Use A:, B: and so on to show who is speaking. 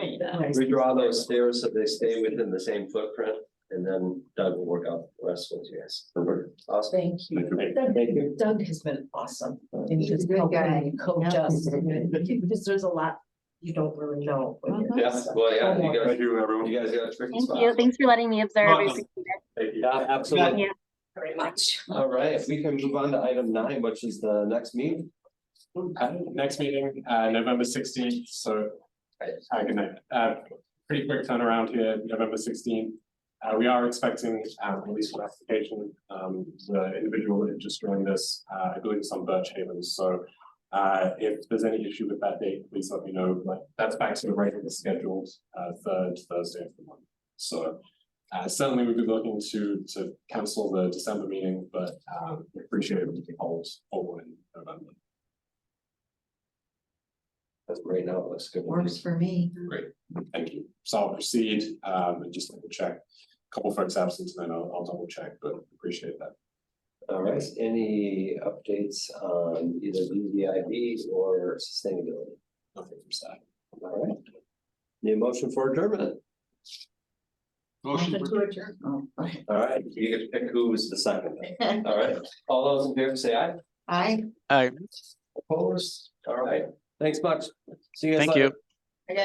A: Yeah.
B: Redraw those stairs so they stay within the same footprint, and then Doug will work out the rest with you guys. Awesome.
A: Thank you. Doug- Doug has been awesome. And
C: He's a
A: just
C: good
A: helping
C: guy.
A: and coach
C: Yeah.
A: us. Because there's a lot you don't really know. when
C: Uh-huh.
A: you're-
B: Yeah, well, yeah, you guys,
D: Thank you, everyone.
B: you guys got a tricky
E: Thank
B: spot.
E: you. Thanks for letting me observe. I
D: Welcome.
E: appreciate it.
B: Yeah, absolutely.
A: Very much.
B: All right, if we can move on to item nine, which is the next meeting.
F: Uh, Next meeting, uh, November sixteenth, so. Uh, good night. Uh, pretty quick turnaround here, November sixteenth. Uh, we are expecting, um, release of application, um, the individual that just joined us, uh, I believe it's on Birch Haven, so. Uh, if there's any issue with that date, please let me know, like, that's back to the regular scheduled, uh, third Thursday of the month, so. Uh, certainly we'd be looking to, to cancel the December meeting, but, um, we appreciate it if we can hold, hold one in November.
B: That's right now, it looks good.
C: Works for me.
F: Thank you. So I'll proceed, um, and just double check. a Couple folks absent, and then I'll, I'll double check, but appreciate that.
B: All right, any updates on either UDIB or sustainability?
F: Nothing from staff.
B: All right. Need a motion for adjournment?
D: Motion for-
A: Oh, okay.
B: All right, you get to pick who was the second. All right, all those in favor say aye.
C: I
B: Opposed? All right, thanks much. See you guys
G: Thank
B: later.
G: you.